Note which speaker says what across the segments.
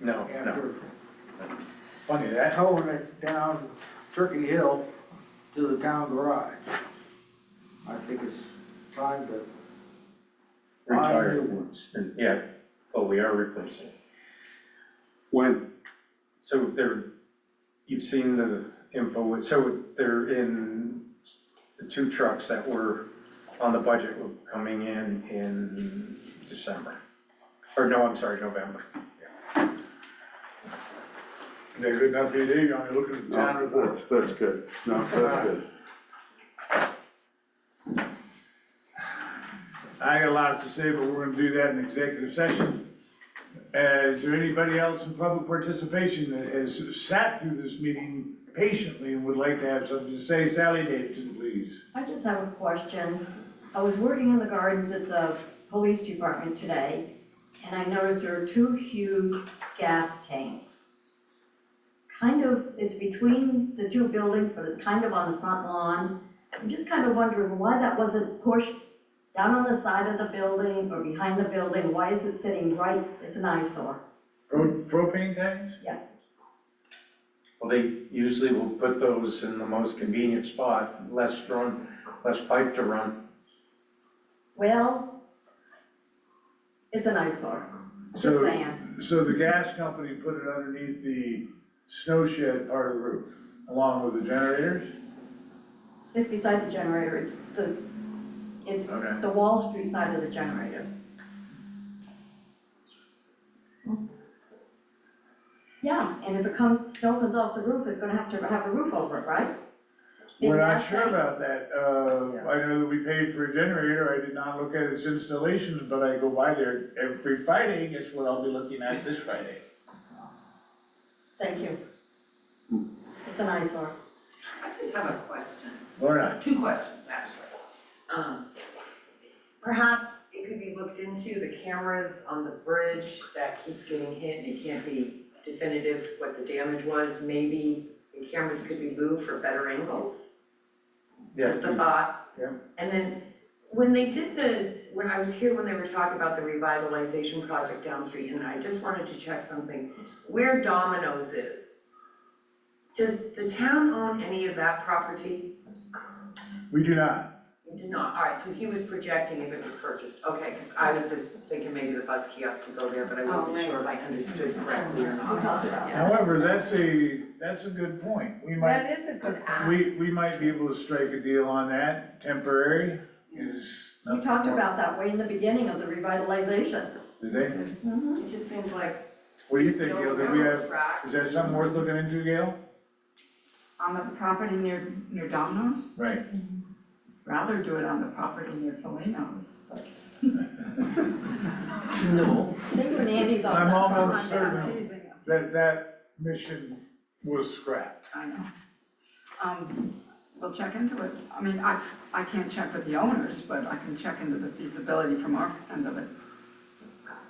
Speaker 1: No, no.
Speaker 2: after
Speaker 1: Funny that.
Speaker 2: towing it down Turkey Hill to the town garage. I think it's time to,
Speaker 1: Retired ones, and yeah, oh, we are replacing.
Speaker 3: When,
Speaker 1: So they're, you've seen the info, so they're in, the two trucks that were on the budget were coming in in December. Or no, I'm sorry, November.
Speaker 4: They're good enough for you, Dave, you want me looking at the town
Speaker 3: no,
Speaker 4: report?
Speaker 3: that's, that's good, no, that's good.
Speaker 4: I got a lot to say, but we're gonna do that in executive session. Uh, is there anybody else in public participation that has sat through this meeting patiently and would like to have something to say? Sally Davidson, please.
Speaker 5: I just have a question. I was working in the gardens at the police department today, and I noticed there are two huge gas tanks. Kind of, it's between the two buildings, but it's kind of on the front lawn. I'm just kind of wondering why that wasn't pushed down on the side of the building or behind the building. Why is it sitting right, it's an eyesore.
Speaker 4: Pro- Propane tanks?
Speaker 5: Yes,
Speaker 1: Well, they usually will put those in the most convenient spot, less run, less pipe to run.
Speaker 5: well, it's an eyesore, just
Speaker 4: So-
Speaker 5: saying.
Speaker 4: So the gas company put it underneath the snow shed part of the roof, along with the generators?
Speaker 5: It's beside the generator, it's the, it's
Speaker 4: Okay.
Speaker 5: the Wall Street side of the generator. Yeah, and if it comes, snow comes off the roof, it's gonna have to have a roof over it, right?
Speaker 4: We're not
Speaker 5: Big
Speaker 4: sure
Speaker 5: glass
Speaker 4: about that, uh, I know that we paid for a generator, I did not look at its installation, but I go by there every Friday, and guess what I'll be looking at this Friday?
Speaker 5: tank. Thank you.
Speaker 4: Hmm.
Speaker 5: It's an eyesore.
Speaker 6: I just have a question,
Speaker 4: Lorna,
Speaker 6: two questions actually. Um, Perhaps it could be looked into, the cameras on the bridge that keeps getting hit and it can't be definitive what the damage was. Maybe the cameras could be moved for better angles,
Speaker 1: Yes,
Speaker 6: just a thought.
Speaker 1: Yeah.
Speaker 6: And then when they did the, when I was here, when they were talking about the revitalization project down the street, and I just wanted to check something, where Domino's is, does the town own any of that property?
Speaker 4: we do not,
Speaker 6: You did not, all right, so he was projecting if it was purchased, okay, because I was just thinking maybe the bus kiosk could go there, but I
Speaker 7: Oh,
Speaker 6: wasn't
Speaker 5: right.
Speaker 6: sure if I understood correctly or
Speaker 5: We talked
Speaker 6: not.
Speaker 5: about that.
Speaker 4: however, that's a, that's a good point, we might,
Speaker 6: That is a good ask.
Speaker 4: we, we might be able to strike a deal on that, temporary is
Speaker 5: We
Speaker 4: nothing
Speaker 5: talked
Speaker 4: more.
Speaker 5: about that way in the beginning of the revitalization.
Speaker 4: Did they,
Speaker 5: Mm-hmm.
Speaker 6: It just seems like.
Speaker 4: what do you
Speaker 6: just
Speaker 4: think,
Speaker 6: don't
Speaker 4: Gail, did
Speaker 6: go
Speaker 4: we
Speaker 6: on
Speaker 4: have,
Speaker 6: tracks.
Speaker 4: is that something worth looking into, Gail?
Speaker 7: on the property near, near Domino's,
Speaker 4: Right,
Speaker 7: rather do it on the property near Polino's, but.
Speaker 6: No.
Speaker 5: I think when Andy's on
Speaker 4: I'm
Speaker 5: that
Speaker 4: almost
Speaker 5: property-
Speaker 4: certain
Speaker 7: teasing them,
Speaker 4: that that mission was scrapped.
Speaker 7: I know. Um, we'll check into it, I mean, I, I can't check with the owners, but I can check into the feasibility from our end of it.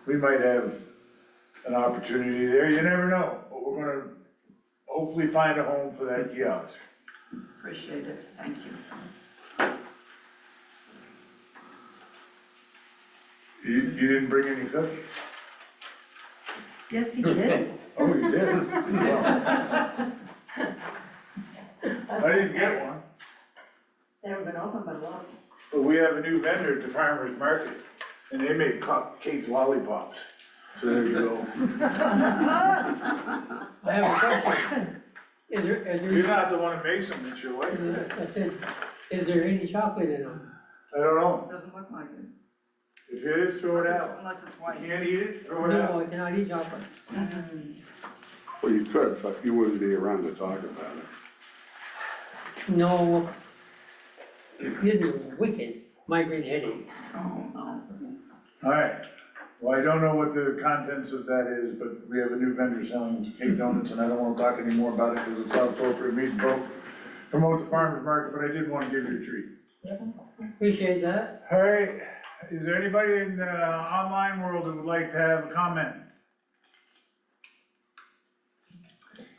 Speaker 4: we might have an opportunity there, you never know, but we're gonna hopefully find a home for that kiosk.
Speaker 7: Appreciate it, thank you.
Speaker 4: You, you didn't bring any cookies?
Speaker 6: Yes, he did.
Speaker 4: Oh, you did? Wow. I didn't get one,
Speaker 5: They haven't been open but a lot.
Speaker 4: but we have a new vendor at the farmer's market, and they make cupcake lollipops, so there you go.
Speaker 8: I have a question. Is there,
Speaker 4: You're
Speaker 8: is there,
Speaker 4: not the one that makes them, it's your wife,
Speaker 8: is there- I said, is there any chocolate in them?
Speaker 4: I don't know,
Speaker 7: Doesn't look like it,
Speaker 4: if it is, throw it
Speaker 7: unless it's,
Speaker 4: out,
Speaker 7: unless it's
Speaker 4: you
Speaker 7: white.
Speaker 4: can't eat it, throw it
Speaker 8: No,
Speaker 4: out.
Speaker 8: I cannot eat chocolate.
Speaker 3: Well, you could, but you wouldn't be around to talk about it.
Speaker 8: No. Give me wicked migraine headache.
Speaker 7: Oh, no.
Speaker 4: All right, well, I don't know what the contents of that is, but we have a new vendor selling cake donuts, and I don't wanna talk anymore about it, because it's not appropriate, we vote, promote the farmer's market, but I did wanna give you a treat.
Speaker 8: Appreciate that.
Speaker 4: All right, is there anybody in the online world that would like to have a comment?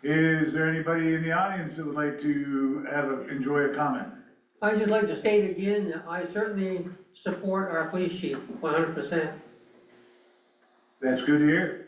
Speaker 4: Is there anybody in the audience that would like to have, a enjoy a comment?
Speaker 8: I just like to state again that I certainly support our police chief one hundred percent.
Speaker 4: That's good to hear.